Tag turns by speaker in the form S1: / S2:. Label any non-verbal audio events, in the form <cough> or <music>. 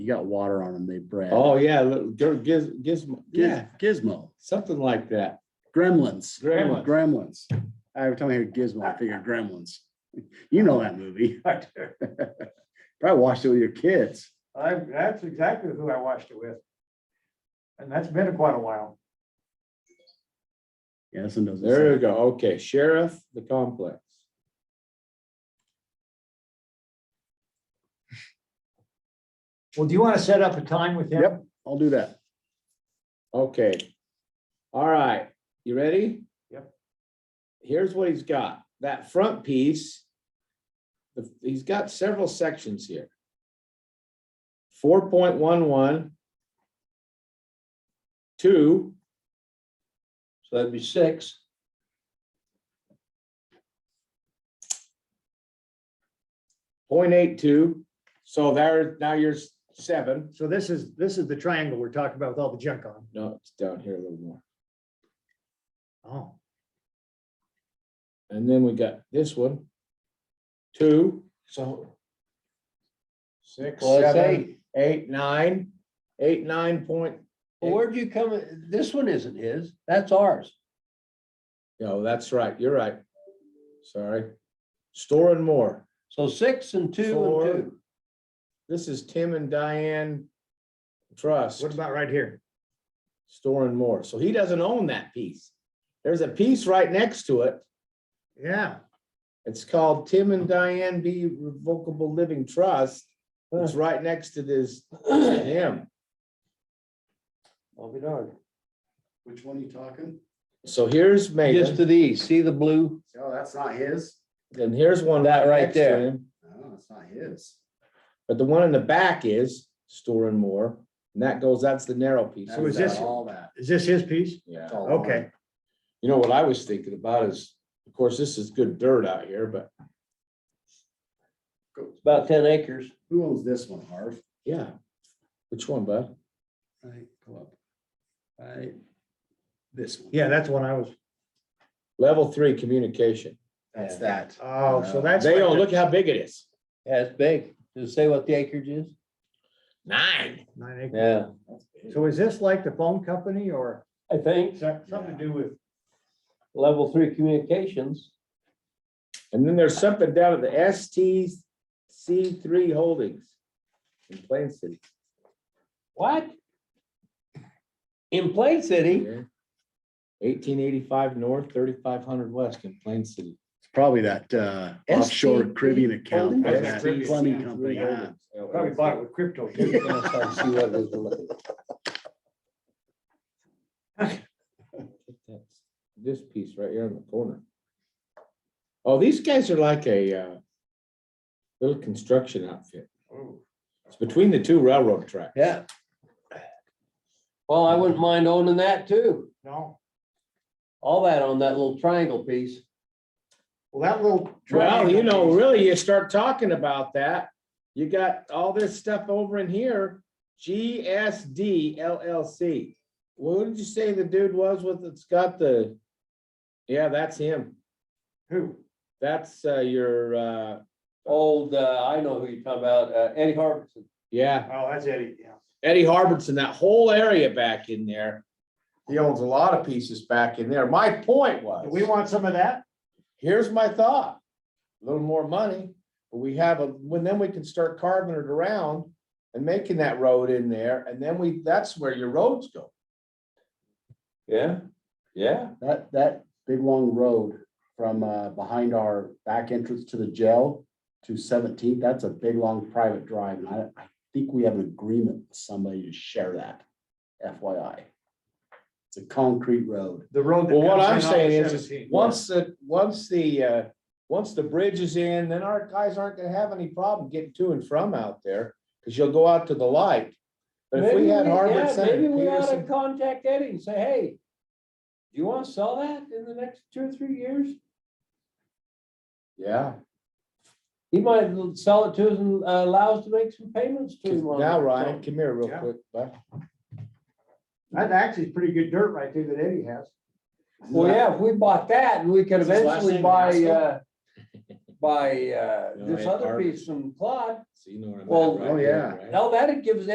S1: you got water on them, they bred.
S2: Oh, yeah, little gir- giz, gizmo,
S1: Giz-
S2: yeah,
S1: Gizmo,
S2: something like that.
S1: Gremlins,
S2: Grandma.
S1: Gremlins. Every time I hear Gizmo, I figure Gremlins. <laughs> You know that movie.
S3: I do.
S1: <laughs> Probably watched it with your kids.
S3: I, that's exactly who I watched it with. And that's been quite a while.
S1: Yeah, this one doesn't.
S2: There
S1: say.
S2: we go. Okay, sheriff, the complex.
S3: Well, do you want to set up a time with him?
S1: Yep. I'll do that.
S2: Okay. All right, you ready?
S3: Yep.
S2: Here's what he's got. That front piece. the- He's got several sections here. Four point one one. Two,
S4: So that'd be six.
S2: point eight two. So there, now you're s- seven.
S3: So this is, this is the triangle we're talking about with all the junk on.
S2: No, it's down here a little more.
S3: Oh.
S2: And then we got this one. Two, so. Six,
S4: Well, that's
S2: seven, eight, nine, eight, nine point,
S4: Well, where'd you come, this one isn't his, that's ours.
S2: no, that's right, you're right. Sorry. Store and more.
S4: So six and two
S2: Four.
S4: and two.
S2: This is Tim and Diane Trust,
S3: What about right here?
S2: Store and More. So he doesn't own that piece. There's a piece right next to it.
S3: Yeah,
S2: It's called Tim and Diane B Revocable Living Trust. It's right next to this, him.
S4: I'll be darned.
S1: Which one are you talking?
S2: So here's
S4: Just
S2: Megan,
S4: to the east, see the blue?
S1: Oh, that's not his.
S2: and here's one.
S4: That right
S2: next to
S4: there.
S2: him.
S1: No, it's not his.
S2: But the one in the back is Store and More, and that goes, that's the narrow piece.
S1: That
S3: So is
S1: got
S3: this-
S1: All that.
S3: is this his piece?
S2: Yeah.
S1: It's all
S3: Okay.
S1: mine.
S2: You know, what I was thinking about is, of course, this is good dirt out here, but
S1: Go-
S4: It's about ten acres.
S1: Who owns this one, Harv?
S2: yeah. Which one, bud?
S1: Right, go up. Right. This one.
S3: Yeah, that's one I was,
S2: Level three communication.
S1: That's that.
S3: oh, so that's.
S2: They
S3: like
S2: own,
S3: the-
S2: look how big it is.
S4: Yeah, it's big. Does it say what the acreage is?
S2: Nine.
S3: Nine acres.
S4: Yeah.
S3: So is this like the phone company or
S4: I think
S3: something to do with?
S4: level three communications.
S2: And then there's something down at the STC three holdings in Plain City.
S4: What? In Plain City?
S2: Eighteen eighty-five north, thirty-five hundred west in Plain City.
S1: It's probably that uh, offshore
S4: STP
S1: Caribbean account.
S4: Holdings?
S1: that
S3: STP
S1: Plumbing company. Ah. yeah.
S2: Holdings, LLC.
S3: Probably bought it with crypto.
S4: I'm
S3: too. <laughs>
S4: gonna try to see what it is we're looking at.
S2: That's <laughs> This piece right here in the corner. Oh, these guys are like a uh, little construction outfit.
S3: Oh.
S2: It's between the two railroad tracks.
S4: Yeah. Well, I wouldn't mind owning that too.
S3: No,
S4: All that on that little triangle piece.
S3: well, that little.
S2: Well, you know,
S3: triangle piece-
S2: really, you start talking about that, you got all this stuff over in here, GSD LLC. What did you say the dude was with, it's got the, yeah, that's him.
S3: Who?
S2: That's uh, your, uh,
S4: Old, uh, I know who you're talking about, uh, Eddie Harbison.
S2: yeah,
S3: Oh, that's Eddie, yeah.
S2: Eddie Harbison, that whole area back in there. He owns a lot of pieces back in there. My point
S3: Do we
S2: was,
S3: want some of that?
S2: here's my thought. A little more money, but we have a, when then we can start carving it around and making that road in there, and then we, that's where your roads go.
S4: Yeah, yeah.
S1: That, that big long road from uh, behind our back entrance to the jail to Seventeenth, that's a big, long private drive. And I, I think we have an agreement with somebody to share that FYI. It's a concrete road.
S3: The road. that
S2: Well, what
S3: comes
S2: I'm
S3: in off
S2: saying is,
S3: 17.
S2: is once the, once the, uh, once the bridge is in, then our guys aren't gonna have any problem getting to and from out there, cause you'll go out to the light. But if we had Harvard Center,
S4: Maybe we ought to
S2: Peterson,
S4: contact Eddie and say, hey, do you want to sell that in the next two or three years?
S2: yeah,
S4: He might sell it to us and uh, allow us to make some payments to him. on
S2: now
S4: it.
S2: Ryan, come here real
S3: Yeah.
S2: quick, bud.
S3: That actually is pretty good dirt right there that Eddie has.
S4: Well, yeah, if we bought that, we could
S1: Is his last
S4: eventually
S1: name
S4: buy,
S1: Haskell?
S4: uh, buy, uh,
S2: No,
S4: this
S1: <laughs>
S2: it-
S4: other
S2: Harvard.
S4: piece from Claude.
S2: So you know where I'm at
S4: Well,
S2: right
S1: oh,
S2: there,
S1: yeah.
S2: right?
S4: Now that it gives